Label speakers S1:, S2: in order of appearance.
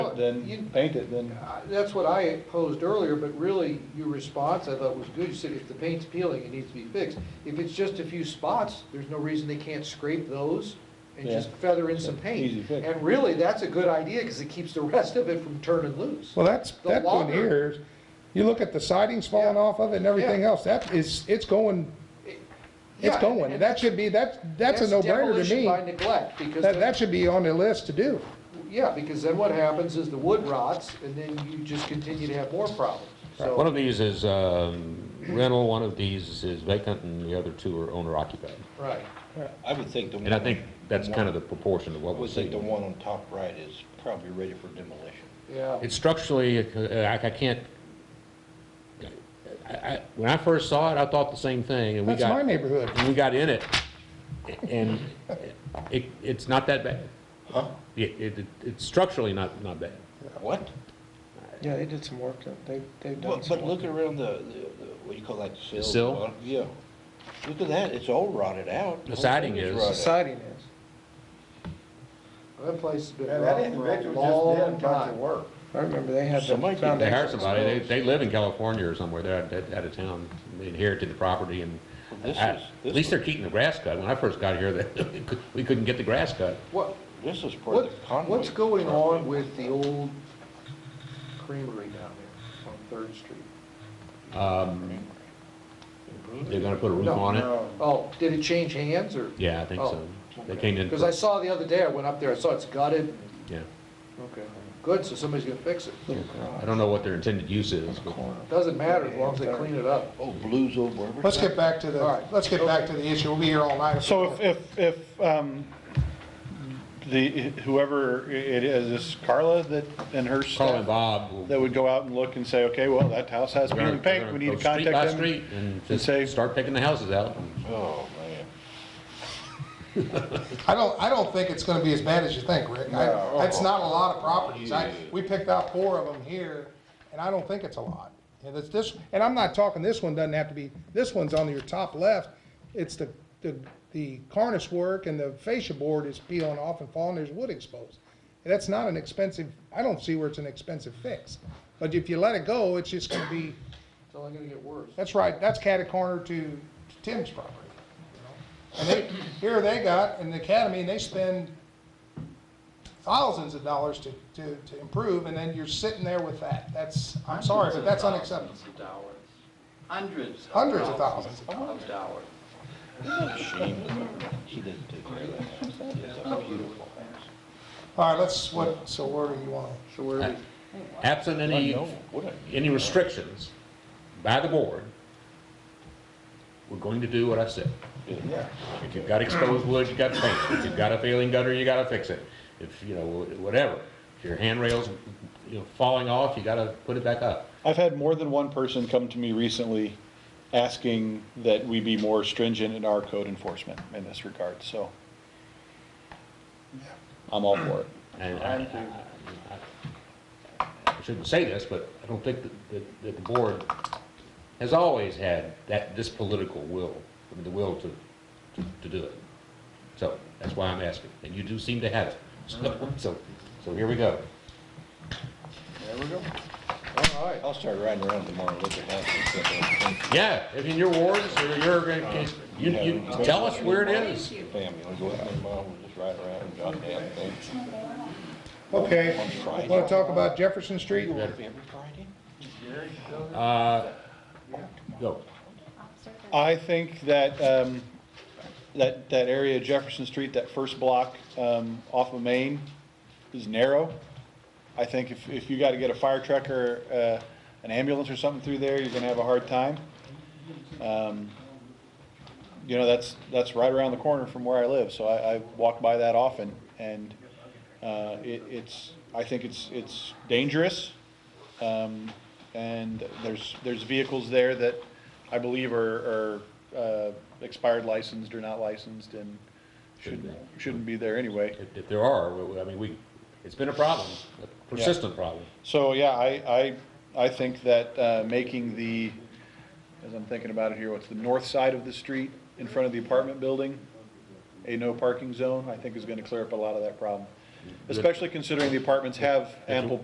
S1: then
S2: You-
S1: paint it, then,
S2: I- That's what I posed earlier, but really, your response, I thought was good, you said if the paint's peeling, it needs to be fixed. If it's just a few spots, there's no reason they can't scrape those and
S1: Yeah.
S2: just feather in some paint.
S1: Easy fix.
S2: And really, that's a good idea, because it keeps the rest of it from turning loose.
S3: Well, that's,
S2: The
S3: that one
S2: longer-
S3: here, is- you look at the sidings falling
S2: Yeah.
S3: off of it and everything
S2: Yeah.
S3: else, that is, it's going, it's
S2: Yeah,
S3: going.
S2: and
S3: That should be, that's, that's a no-brainer to
S2: demolition
S3: me.
S2: by neglect, because
S3: That,
S2: then-
S3: that should be on the list to do.
S2: Yeah, because then what happens is the wood rots, and then you just continue to have more problems.
S4: One
S2: So,
S4: of these is um, rental, one of these is vacant, and the other two are owner occupied.
S2: right.
S5: I would think the one.
S4: And I think that's kind of the proportion of
S5: I
S4: what we're
S5: would think the
S4: seeing.
S5: one on top right is probably ready for demolition.
S2: Yeah.
S4: It's structurally, uh, I I can't, I- I- when I first saw it, I thought the same thing, and we
S3: That's my
S4: got,
S3: neighborhood.
S4: and we got in it, and it, it's not that bad.
S5: Huh?
S4: It, it- it's structurally not, not bad.
S5: What?
S6: Yeah, they did some work, they, they've
S5: Well,
S6: done some
S5: But
S6: work.
S5: look around the, the- the- what do you call that, sill?
S4: sill?
S5: Uh, Yeah. Look at that, it's all rotted out.
S4: The
S5: Whole
S4: siding
S5: thing
S4: is.
S6: The
S5: rotted.
S6: siding is.
S2: That place has been
S7: Yeah,
S2: rough
S7: that
S2: for a
S7: individual just did a
S2: long
S7: bunch of
S2: time.
S7: work.
S6: I remember they had the
S5: Somebody did that.
S6: foundation.
S4: They hired somebody, they, they live in California or somewhere, they're out, out of town, they inherited the property and
S5: Well, this
S4: I-
S5: is-
S4: at
S5: this
S4: least
S5: is-
S4: they're keeping the grass cut. When I first got here, that, we couldn't get the grass cut.
S2: What,
S5: This is part
S2: what,
S5: of the convoy.
S2: what's going
S5: property.
S2: on with the old creamery down there on Third Street?
S4: Um, they're gonna put a roof
S2: No,
S4: on it?
S7: No,
S2: Oh, did it change hands or?
S4: Yeah, I think so.
S8: Oh,
S4: They came in,
S2: Because I saw the other day, I went up there, I saw it's gutted.
S4: yeah.
S2: Okay. Good, so somebody's gonna fix it.
S4: I don't know what their intended use is, but
S2: Doesn't matter as long as they clean it up.
S5: Oh, blues over everything.
S3: Let's get back to
S2: All
S3: the,
S2: right.
S3: let's get back to the issue. We'll be here all night.
S8: So if, if, if, um, the, whoever it is, is Carla that, and
S4: Carl
S8: her
S4: and
S8: staff,
S4: Bob will.
S8: that would go out and look and say, okay, well, that house has
S4: we're
S8: to
S4: gonna-
S8: be paint,
S4: we're
S8: we
S4: gonna
S8: need to
S4: go street by
S8: contact them.
S4: Street and
S8: say-
S4: just start picking the houses out.
S5: Oh, man.
S3: I don't, I don't think it's gonna be as bad as you think, Rick.
S7: No.
S3: I- That's not a lot of properties. I, we picked out four of them here, and I don't think it's a lot. And it's this, and I'm not talking, this one doesn't have to be, this one's on your top left. It's the, the, the cornice work and the fascia board is peeling off and falling, there's wood exposed. And that's not an expensive, I don't see where it's an expensive fix. But if you let it go, it's just gonna be,
S2: It's only gonna get worse.
S3: that's right, that's catty corner to Tim's property. you know? And they, here they got an academy, and they spend thousands of dollars to, to, to improve, and then you're sitting there with that. That's, I'm sorry, but that's unacceptable.
S7: Hundreds of
S3: Hundreds of
S7: thousands of dollars.
S5: She didn't take care of that house. It's a beautiful house.
S3: All right, let's, what, so where do you want to?
S2: So where are we?
S4: Absent any,
S5: I know, what a
S4: any restrictions by the board, we're going to do what I said.
S7: Yeah.
S4: If you've got exposed wood, you gotta paint it. If you've got a failing gutter, you gotta fix it. If, you know, whatever. If your handrail's, you know, falling off, you gotta put it back up.
S8: I've had more than one person come to me recently asking that we be more stringent in our code enforcement in this regard, so. I'm all for it.
S4: And I, I- I shouldn't say this, but I don't think that, that, that the board has always had that, this political will, I mean, the will to, to, to do it. So, that's why I'm asking, and you do seem to have it. So, so, so here we go.
S5: There we go.
S2: All right.
S5: I'll start riding around tomorrow, look at that.
S4: Yeah, if in your wards, or your, you, you, tell us where it is.
S5: Family, I'll go out tomorrow, we'll just ride around and goddamn thing.
S3: Okay,
S5: Friday.
S3: want to talk about Jefferson Street?
S5: Every Friday?
S4: Uh, Go.
S8: I think that, um, that, that area of Jefferson Street, that first block, um, off of Main is narrow. I think if, if you gotta get a fire truck or, uh, an ambulance or something through there, you're gonna have a hard time. Um, You know, that's, that's right around the corner from where I live, so I, I walk by that often, and, uh, it, it's, I think it's, it's dangerous. Um, and there's, there's vehicles there that I believe are, are, uh, expired licensed or not licensed and shouldn't, shouldn't be there anyway.
S4: If, if there are, we- we- I mean, we, it's been a problem, a persistent problem.
S8: So, yeah, I, I, I think that, uh, making the, as I'm thinking about it here, what's the north side of the street in front of the apartment building, a no parking zone, I think is gonna clear up a lot of that problem. Especially considering the apartments have ample